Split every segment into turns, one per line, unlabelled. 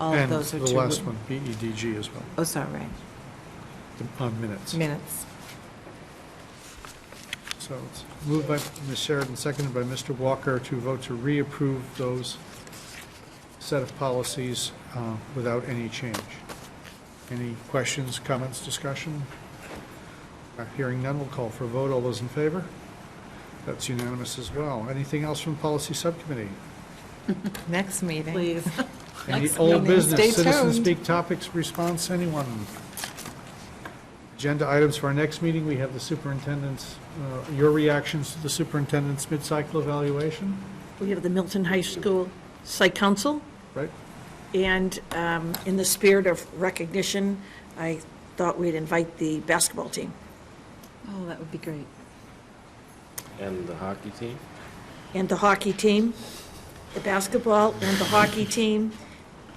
all of those are
And
two.
the last one, BEDG as well,
Oh, sorry, right.
the- on minutes.
minutes.
So it's moved by Ms. Sheridan, seconded by Mr. Walker to vote to reapprove those set of policies uh, without any change. Any questions, comments, discussion? Uh, Hearing none, we'll call for a vote. All those in favor? That's unanimous as well. Anything else from Policy Subcommittee?
Next meeting.
Please.
Any
Next
old
meeting. Stay
business, citizen
tuned.
speak topics, response, anyone? Agenda items for our next meeting, we have the superintendent's, uh, your reactions to the superintendent's mid-cycle evaluation,
We have the Milton High School Psych Council,
right?
and um, in the spirit of recognition, I thought we'd invite the basketball team
Oh, that would be great.
And the hockey team?
and the hockey team, the basketball and the hockey team,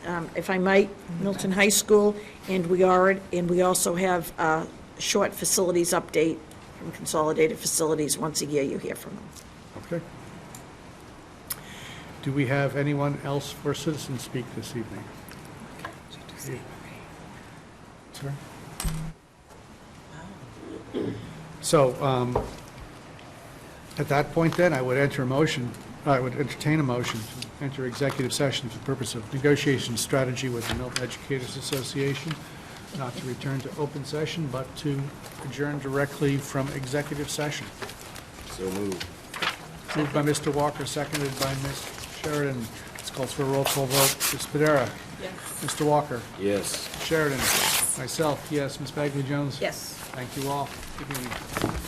um, if I might, Milton High School, and we are, and we also have a short facilities update from Consolidated Facilities. Once a year, you hear from them.
Okay. Do we have anyone else for citizen speak this evening? Sorry? So, um, at that point then, I would enter a motion, I would entertain a motion to enter executive session for the purpose of negotiation strategy with the Milton Educators Association, not to return to open session, but to adjourn directly from executive session.
So moved.
Moved by Mr. Walker, seconded by Ms. Sheridan. This calls for a roll call vote. Ms. Padera? Yes. Mr. Walker?
Yes.
Sheridan? Myself, yes. Ms. Bagley Jones?
Yes.
Thank you all. Good evening.